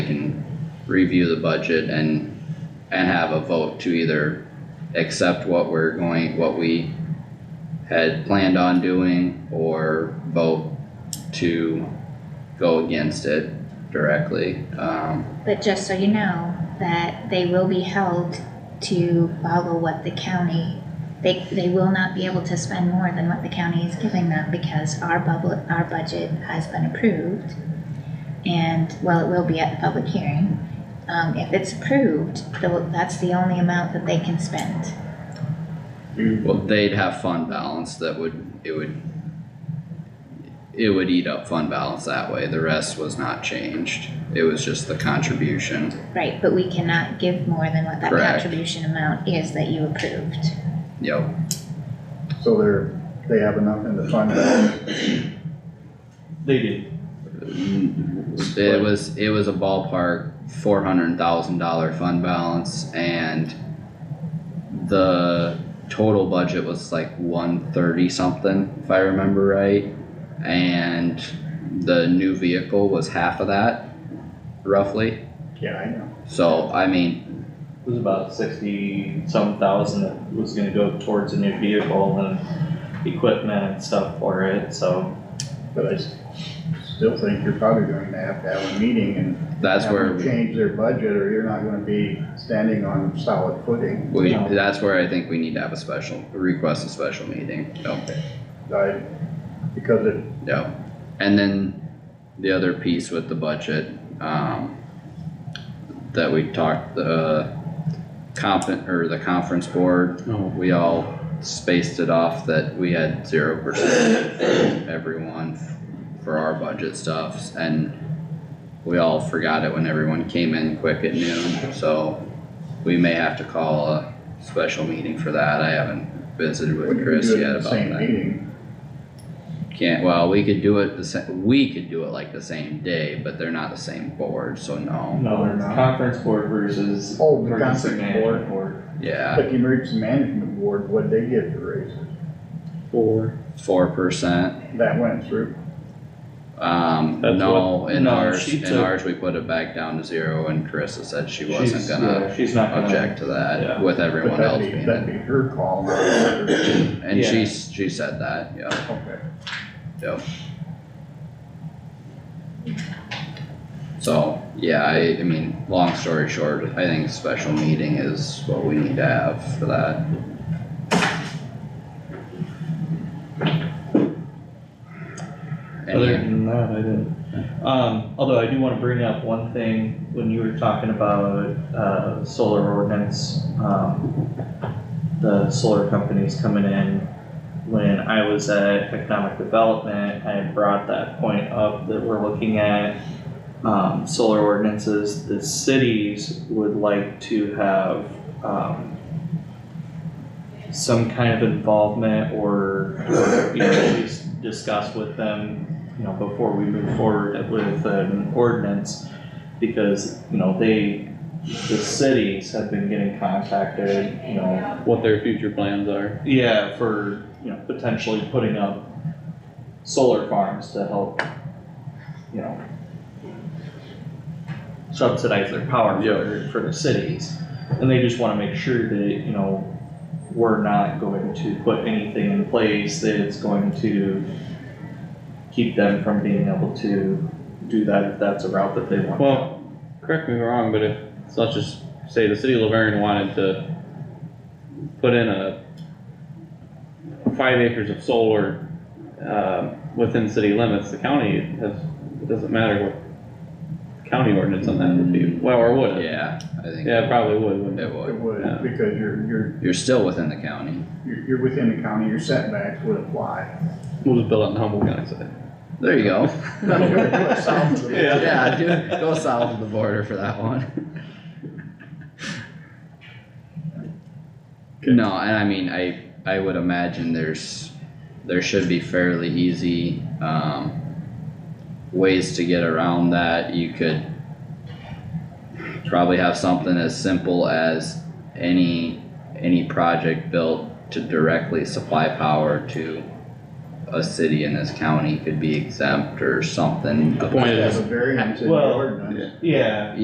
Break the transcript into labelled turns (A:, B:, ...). A: review the budget and, and have a vote to either accept what we're going, what we had planned on doing or vote to go against it directly, um.
B: But just so you know, that they will be held to follow what the county, they, they will not be able to spend more than what the county is giving them because our bubble, our budget has been approved. And, well, it will be at the public hearing. Um, if it's approved, tho- that's the only amount that they can spend.
A: Well, they'd have fund balance that would, it would. It would eat up fund balance that way, the rest was not changed, it was just the contribution,
B: Right, but we cannot give more than what that
A: Correct.
B: contribution amount is that you approved.
A: yep,
C: So they're, they have enough in the fund balance,
D: They did.
A: it was, it was a ballpark four hundred thousand dollar fund balance and. The total budget was like one thirty something, if I remember right, and the new vehicle was half of that, roughly,
C: yeah, I know.
A: so I mean.
D: It was about sixty some thousand that was gonna go towards a new vehicle and equipment and stuff for it, so.
C: But I s- still think you're probably going to have to have a meeting and.
A: That's
C: have
A: where
C: them
A: we,
C: Change their budget or you're not gonna be standing on solid footing.
A: we-
D: Yeah.
A: that's where I think we need to have a special, request a special meeting, yep,
C: I, because it,
A: yep. And then the other piece with the budget, um, that we talked, the comp, or the conference board,
C: Oh.
A: we all spaced it off that we had zero percent for everyone for our budget stuffs and we all forgot it when everyone came in quick at noon, so we may have to call a special meeting for that. I haven't visited
C: when
A: with
C: you
A: Chris
C: do it
A: yet
C: in the
A: about
C: same
A: that.
C: meeting,
A: Can't, well, we could do it the sa- we could do it like the same day, but they're not the same board, so no,
D: No,
C: they're not.
D: conference board versus.
C: Oh, the
D: emergency
C: conference
D: management board.
A: yeah,
C: but the emergency management board, what they give for raises,
E: Four.
A: four percent.
C: that went through.
A: Um,
D: That's
A: no,
D: what-
A: in
D: no,
A: ours,
D: she
A: in
D: took-
A: ours, we put it back down to zero and Carissa said she wasn't
D: She's-
A: gonna
D: yeah, She's not gonna.
A: object to that
D: Yeah.
A: with
C: But
A: everyone
C: that'd
A: else
C: be,
A: being
C: that'd
A: in.
C: be her call. not hers.
A: And
D: Yeah.
A: she, she said that, yeah,
C: Okay.
A: yeah. So, yeah, I, I mean, long story short, I think special meeting is what we need to have for that.
D: Other
A: Any,
D: than that, I didn't. Um, although I do wanna bring up one thing, when you were talking about, uh, solar ordinance, um, the solar companies coming in, when I was at economic development, I had brought that point up that we're looking at, um, solar ordinances, the cities would like to have, um, some kind of involvement or, or, you know, at least discuss with them you know, before we move forward with an ordinance. Because, you know, they, the cities have been getting contacted, you know,
E: What their future plans are.
D: yeah, for, you know, potentially putting up solar farms to help, you know, subsidize their power for, for the cities. And they just wanna make sure that, you know, we're not going to put anything in place that it's going to keep them from being able to do that if that's a route that they want.
E: Well, correct me if I'm wrong, but if, so let's just say the city of Laverne wanted to put in a five acres of solar, um, within city limits, the county has, it doesn't matter what county ordinance on that would be, well, or would it?
A: yeah, I think
E: Yeah, it
A: it
E: probably would, wouldn't it?
C: It
A: would,
C: would,
E: Yeah.
C: because you're, you're,
A: you're still within the county,
C: you're, you're within the county, your setbacks would apply.
E: We'll just build it in Humboldt County, so.
A: there you go.
C: Yeah.
A: Yeah, dude, go south of the border for that one. No, and I mean, I, I would imagine there's, there should be fairly easy, um, ways to get around that, you could probably have something as simple as any, any project built to directly supply power to a city in this county could be exempt or something.
E: The point
C: Have
E: is,
C: a variance in the
D: Well,
C: ordinance.
E: yeah.
D: Yeah,